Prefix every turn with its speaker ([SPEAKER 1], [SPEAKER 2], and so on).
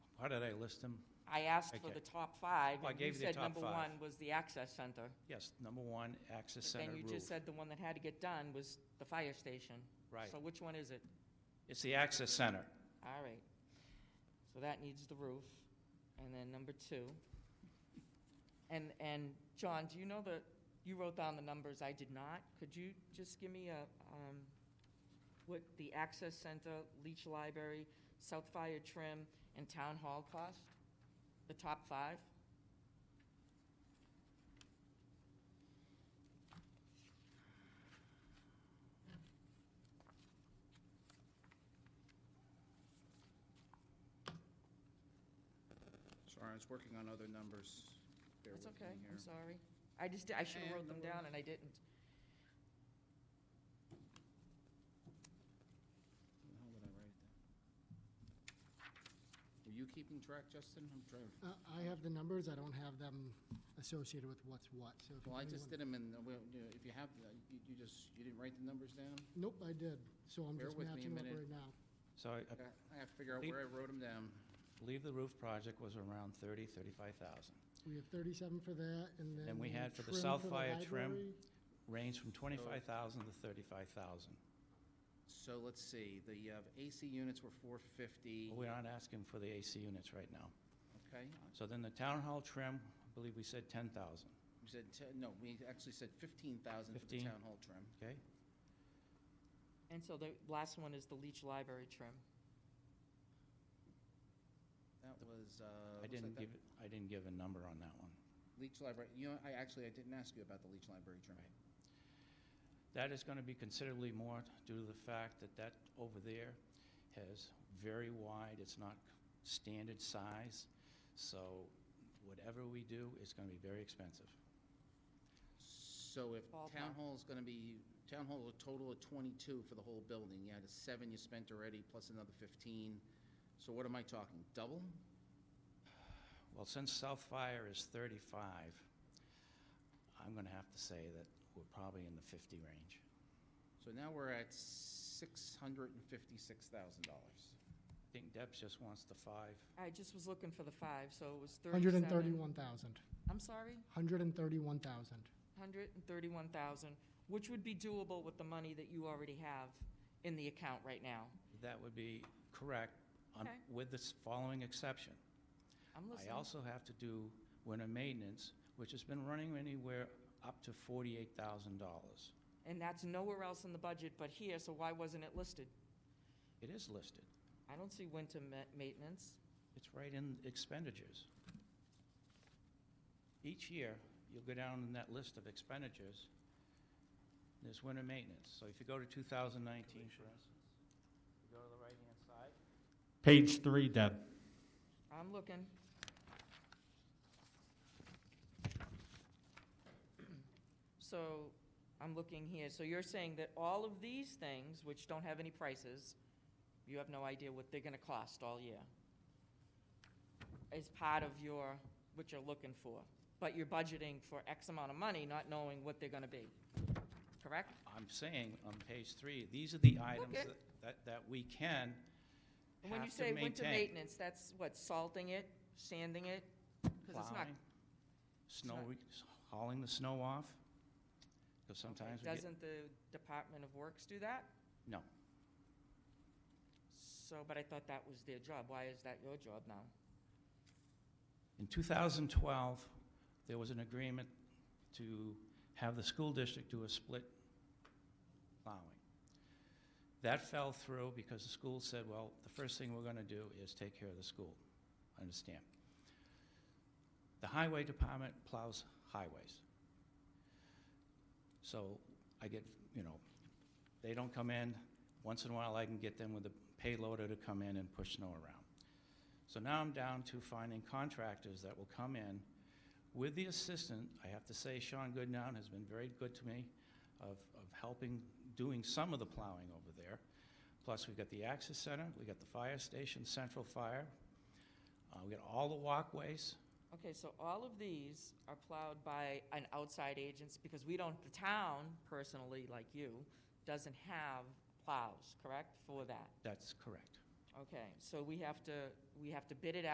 [SPEAKER 1] How did I list them?
[SPEAKER 2] I asked for
[SPEAKER 1] Okay.
[SPEAKER 2] the top five,
[SPEAKER 1] Well, I
[SPEAKER 2] and you
[SPEAKER 1] gave you the
[SPEAKER 2] said
[SPEAKER 1] top
[SPEAKER 2] number
[SPEAKER 1] five.
[SPEAKER 2] one was the access center.
[SPEAKER 1] Yes, number one, access
[SPEAKER 2] But
[SPEAKER 1] center
[SPEAKER 2] then
[SPEAKER 1] roof.
[SPEAKER 2] you just said the one that had to get done was the fire station.
[SPEAKER 1] Right.
[SPEAKER 2] So which one is it?
[SPEAKER 1] It's the access center.
[SPEAKER 2] All right. So that needs the roof, and then number two. And, and John, do you know the, you wrote down the numbers, I did not. Could you just give me a, um, what the access center, leach library, South Fire trim, and town hall cost? The top five?
[SPEAKER 3] Sorry, I was working on other numbers. Bear
[SPEAKER 2] That's
[SPEAKER 3] with me
[SPEAKER 2] okay,
[SPEAKER 3] here.
[SPEAKER 2] I'm sorry. I just, I should have
[SPEAKER 3] And
[SPEAKER 2] wrote
[SPEAKER 3] no
[SPEAKER 2] them down
[SPEAKER 3] worries.
[SPEAKER 2] and I didn't.
[SPEAKER 3] Where the hell did I write it down? Were you keeping track, Justin? I'm trying, to-
[SPEAKER 4] Uh, I have the numbers, I don't have them associated with what's what, so if you
[SPEAKER 3] well, I
[SPEAKER 4] really
[SPEAKER 3] just
[SPEAKER 4] want-
[SPEAKER 3] did them in, the- well, you know, if you have, the- you you just, you didn't write the numbers down?
[SPEAKER 4] Nope, I did, so I'm
[SPEAKER 3] Bear
[SPEAKER 4] just
[SPEAKER 3] with me a
[SPEAKER 4] matching up
[SPEAKER 3] minute.
[SPEAKER 4] right now.
[SPEAKER 1] So I I
[SPEAKER 3] I I have to figure out
[SPEAKER 1] Leave-
[SPEAKER 3] where I wrote them down.
[SPEAKER 1] believe the roof project was around 30, 35,000.
[SPEAKER 4] We have thirty-seven for that, and then.
[SPEAKER 1] And we had for the
[SPEAKER 4] trim
[SPEAKER 1] South Fire trim.
[SPEAKER 4] library.
[SPEAKER 1] Range from 25,000 to 35,000.
[SPEAKER 3] So let's see, the uh, AC units were 450,
[SPEAKER 1] But we aren't asking for the AC units right now.
[SPEAKER 3] okay?
[SPEAKER 1] So then the town hall trim, I believe we said 10,000,
[SPEAKER 3] We said, te- no, we actually said 15,000 for the
[SPEAKER 1] 15.
[SPEAKER 3] town hall trim.
[SPEAKER 1] okay?
[SPEAKER 2] And so the last one is the Leech Library trim.
[SPEAKER 3] That was, uh,
[SPEAKER 1] I
[SPEAKER 3] looks
[SPEAKER 1] didn't
[SPEAKER 3] like
[SPEAKER 1] give,
[SPEAKER 3] that-
[SPEAKER 1] I didn't give a number on that one.
[SPEAKER 3] Leech Library, you know, I actually, I didn't ask you about the Leech Library trim.
[SPEAKER 1] Right. That is going to be considerably more due to the fact that that over there has very wide, it's not standard size. So whatever we do, it's going to be very expensive.
[SPEAKER 3] So if town
[SPEAKER 2] Ballpark.
[SPEAKER 3] hall's gonna be, town hall, a total of twenty-two for the whole building, you had a seven you spent already, plus another fifteen. So what am I talking, double?
[SPEAKER 1] Well, since South Fire is 35, I'm going to have to say that we're probably in the 50 range.
[SPEAKER 3] So now we're at six hundred and fifty-six thousand dollars.
[SPEAKER 1] I think Debs just wants the five.
[SPEAKER 2] I just was looking for the five, so it was
[SPEAKER 4] Hundred
[SPEAKER 2] thirty-seven.
[SPEAKER 4] and thirty-one thousand.
[SPEAKER 2] I'm sorry,
[SPEAKER 4] Hundred and thirty-one thousand.
[SPEAKER 2] hundred and thirty-one thousand, which would be doable with the money that you already have in the account right now.
[SPEAKER 1] That would be correct, on-
[SPEAKER 2] Okay.
[SPEAKER 1] with the following exception.
[SPEAKER 2] I'm
[SPEAKER 1] I
[SPEAKER 2] listening.
[SPEAKER 1] also have to do winter maintenance, which has been running anywhere up to forty-eight thousand dollars.
[SPEAKER 2] And that's nowhere else in the budget but here, so why wasn't it listed?
[SPEAKER 1] It is listed.
[SPEAKER 2] I don't see winter ma- maintenance.
[SPEAKER 1] It's right in expenditures. Each year, you'll go down in that list of expenditures, there's winter maintenance. So if you go to two thousand nineteen, for instance, you go to the right-hand side.
[SPEAKER 5] Page three, Deb.
[SPEAKER 2] I'm looking. So, I'm looking here, so you're saying that all of these things, which don't have any prices, you have no idea what they're gonna cost all year, is part of your, what you're looking for, but you're budgeting for X amount of money, not knowing what they're gonna be, correct?
[SPEAKER 1] I'm saying on page three, these are the items
[SPEAKER 2] Okay.
[SPEAKER 1] that, that, that we can
[SPEAKER 2] And When you
[SPEAKER 1] have to
[SPEAKER 2] say winter
[SPEAKER 1] maintain.
[SPEAKER 2] maintenance, that's what, salting it, sanding it? 'Cause it's not
[SPEAKER 1] plowing, snow,
[SPEAKER 2] not-
[SPEAKER 1] re- hauling the snow off, because sometimes we get,
[SPEAKER 2] Doesn't the Department of Works do that?
[SPEAKER 1] no.
[SPEAKER 2] So, but I thought that was their job. Why is that your job now?
[SPEAKER 1] In 2012, there was an agreement to have the school district do a split plowing. That fell through because the school said, well, the first thing we're going to do is take care of the school. Understand? The highway department plows highways. So I get, you know, they don't come in. Once in a while, I can get them with a payloader to come in and push snow around. So now I'm down to finding contractors that will come in with the assistant. I have to say Sean Goodnow has been very good to me of, of helping, doing some of the plowing over there. Plus, we've got the access center, we got the fire station, central fire. Uh, we got all the walkways.
[SPEAKER 2] Okay, so all of these are plowed by an outside agents because we don't, the town personally, like you, doesn't have plows, correct, for that?
[SPEAKER 1] That's correct.
[SPEAKER 2] Okay, so we have to, we have to bid it out.